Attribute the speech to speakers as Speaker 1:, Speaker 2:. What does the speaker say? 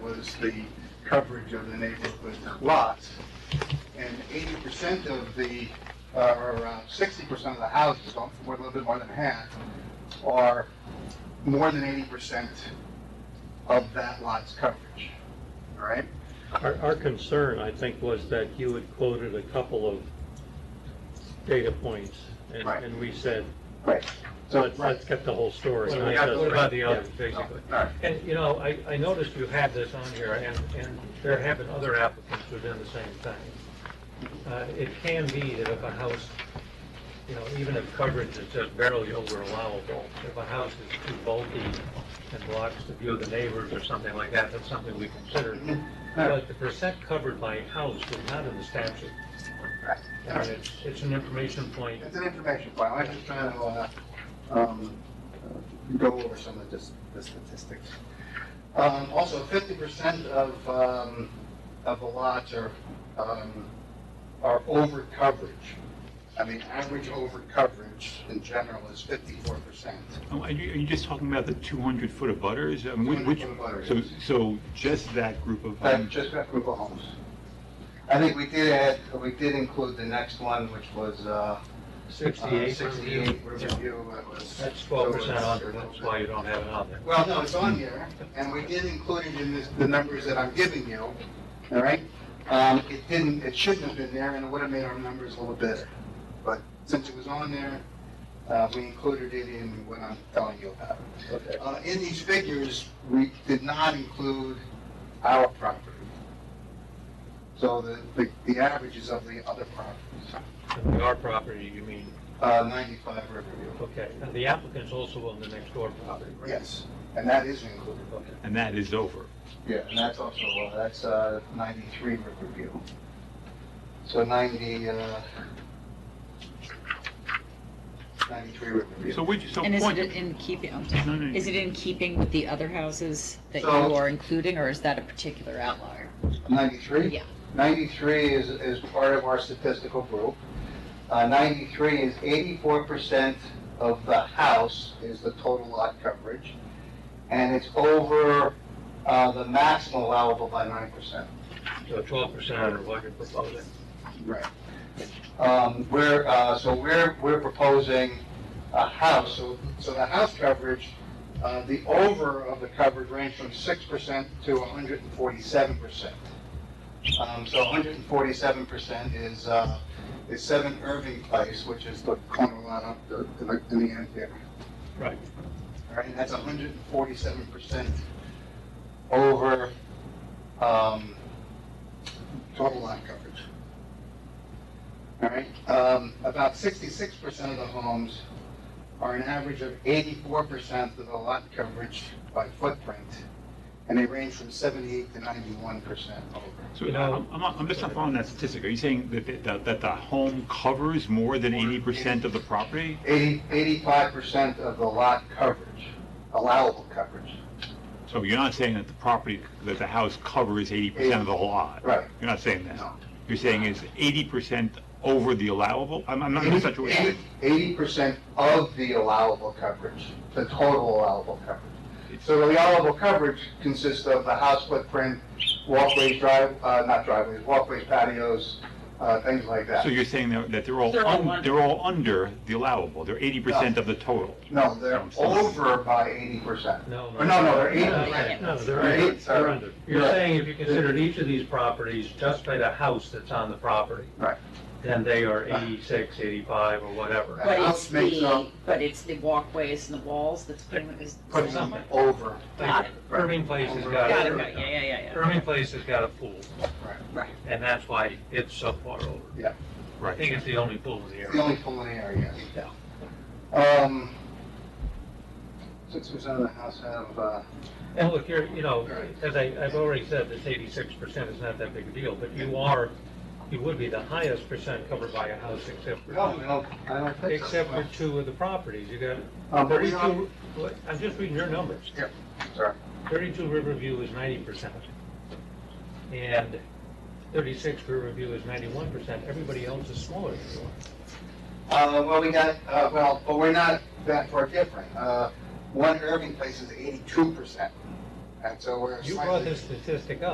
Speaker 1: is the coverage of the neighborhood lots. And eighty percent of the, uh, or around sixty percent of the houses, or a little bit more than half, are more than eighty percent of that lot's coverage, all right?
Speaker 2: Our, our concern, I think, was that you had quoted a couple of data points, and,
Speaker 1: Right.
Speaker 2: and we said,
Speaker 1: Right. So,
Speaker 2: let's,
Speaker 1: right,
Speaker 2: let's get the whole story.
Speaker 3: So
Speaker 2: not
Speaker 3: we got to
Speaker 2: just-
Speaker 3: vote about the
Speaker 2: yeah,
Speaker 3: other, basically.
Speaker 1: all right.
Speaker 3: And, you know, I, I noticed you have this on here, and, and there have been other applicants who've done the same thing. Uh, It can be that if a house, you know, even if coverage is just barely over allowable, if a house is too bulky and blocks the view of the neighbors or something like that, that's something we consider. But the percent covered by house is not in the statute. I mean, it's, it's an information point.
Speaker 1: It's an information file, I'm just trying to, uh, um, uh, go over some of this, the statistics. Um, also, fifty percent of, um, of the lots are, um, are over coverage. I mean, average over coverage in general is fifty-four percent.
Speaker 4: Oh, Are you, are you just talking about the 200 foot of butters? I mean, which- which-
Speaker 1: 200 foot abutters.
Speaker 4: So, so just that group of,
Speaker 1: That,
Speaker 4: um,
Speaker 1: just that group of homes. I think we did add, we did include the next one, which was, uh,
Speaker 3: Sixty-eight.
Speaker 1: Sixty-eight Riverview. that was-
Speaker 3: That's twelve percent under, that's why you don't have it on there.
Speaker 1: Well, no, it's on here, and we did include it in this, the numbers that I'm giving you, all right? Um, it didn't, it shouldn't have been there, and it would have made our numbers a little better. But since it was on there, uh, we included it in what I'm telling you about.
Speaker 3: Okay.
Speaker 1: Uh, in these figures, we did not include our property. So the, the, the averages of the other properties,
Speaker 3: And the R property, you mean,
Speaker 1: uh, ninety-five Riverview,
Speaker 3: okay, and the applicant's also on the next door property, right?
Speaker 1: yes, and that is included.
Speaker 3: Okay.
Speaker 4: and that is over.
Speaker 1: Yeah, and that's also, uh, that's, uh, ninety-three Riverview. So ninety, uh, ninety-three Riverview.
Speaker 4: So which, so
Speaker 5: And is
Speaker 4: point,
Speaker 5: it in keeping, I'm
Speaker 4: No,
Speaker 5: sorry,
Speaker 4: no,
Speaker 5: is it in keeping with the other houses that you
Speaker 1: So-
Speaker 5: are including, or is that a particular outlier?
Speaker 1: Ninety-three?
Speaker 5: Yeah.
Speaker 1: Ninety-three is, is part of our statistical group. Uh, ninety-three is eighty-four percent of the house is the total lot coverage. And it's over, uh, the maximum allowable by nine percent.
Speaker 3: So twelve percent under what you're proposing.
Speaker 1: Right. Um, we're, uh, so we're, we're proposing a house, so, so the house coverage, uh, the over of the coverage range from six percent to hundred and forty-seven percent. Um, so hundred and forty-seven percent is, uh, is seven Irving Place, which is the corner lot up the, in the, in the end there.
Speaker 4: Right.
Speaker 1: All right, and that's hundred and forty-seven percent over, um, total lot coverage. All right, um, about sixty-six percent of the homes are an average of eighty-four percent of the lot coverage by footprint, and they range from seventy-eight to ninety-one percent over.
Speaker 4: So uh,
Speaker 3: You know-
Speaker 4: I'm, I'm not- I'm just not following that statistic. Are you saying that, the- that, that the home covers more than 80% of the property?
Speaker 1: Eighty, eighty-five percent of the lot coverage, allowable coverage.
Speaker 4: So you're not saying that the property, that the house covers 80% of the lot?
Speaker 1: Right.
Speaker 4: You're not saying that?
Speaker 1: No.
Speaker 4: You're saying it's 80% over the allowable? I'm, I'm not, that's not what you're saying.
Speaker 1: Eighty percent of the allowable coverage, the total allowable coverage. So the allowable coverage consists of the house footprint, walkways, drive, uh, not driveways, walkways, patios, uh, things like that.
Speaker 4: So you're saying that that they're all,
Speaker 5: They're all
Speaker 4: un-
Speaker 5: under.
Speaker 4: they're all under the allowable, they're 80% of the total?
Speaker 1: No, they're over by eighty percent.
Speaker 3: No, no.
Speaker 1: Or no, no, they're
Speaker 3: No,
Speaker 1: eighty
Speaker 5: right.
Speaker 1: percent.
Speaker 3: No, they're
Speaker 1: Right,
Speaker 3: under,
Speaker 1: sorry.
Speaker 3: they're under. You're saying if you considered each of these properties just by the house that's on the property.
Speaker 1: Right.
Speaker 3: Then they are eighty-six, eighty-five, or whatever.
Speaker 1: Right.
Speaker 5: But
Speaker 1: house
Speaker 5: it's
Speaker 1: makes
Speaker 5: the,
Speaker 1: up-
Speaker 5: but it's the walkways and the walls that's pretty much, is.
Speaker 1: Put
Speaker 5: is that
Speaker 1: something
Speaker 5: right?
Speaker 1: over.
Speaker 5: Got it.
Speaker 3: Irving Place has got.
Speaker 5: Got it, right, yeah, yeah, yeah, yeah.
Speaker 3: Irving Place has got a pool,
Speaker 5: Right.
Speaker 3: and that's why it's so far over. I
Speaker 4: Right.
Speaker 3: think it's the only pool in the
Speaker 1: The
Speaker 3: area.
Speaker 1: only pool in the area, yes. Um, six percent of the house have, uh,
Speaker 3: And look, you're, you know,
Speaker 1: Right.
Speaker 3: as I, I've already said, this eighty-six percent is not that big a deal, but you are, you would be the highest percent covered by a house except
Speaker 1: no, I
Speaker 3: for,
Speaker 1: don't, I don't think so.
Speaker 3: except for two of the properties. You
Speaker 1: Um,
Speaker 3: got
Speaker 1: but we are-
Speaker 3: thirty-two, what- I'm just reading your numbers.
Speaker 1: Yeah, sorry.
Speaker 3: Thirty-two Riverview is ninety percent. And thirty-six Riverview is ninety-one percent. Everybody else is smaller than you are.
Speaker 1: Uh, well, we got, uh, well, but we're not that far different. Uh, one Irving place is eighty-two percent And so we're
Speaker 3: You
Speaker 1: slightly.
Speaker 3: brought this statistic up.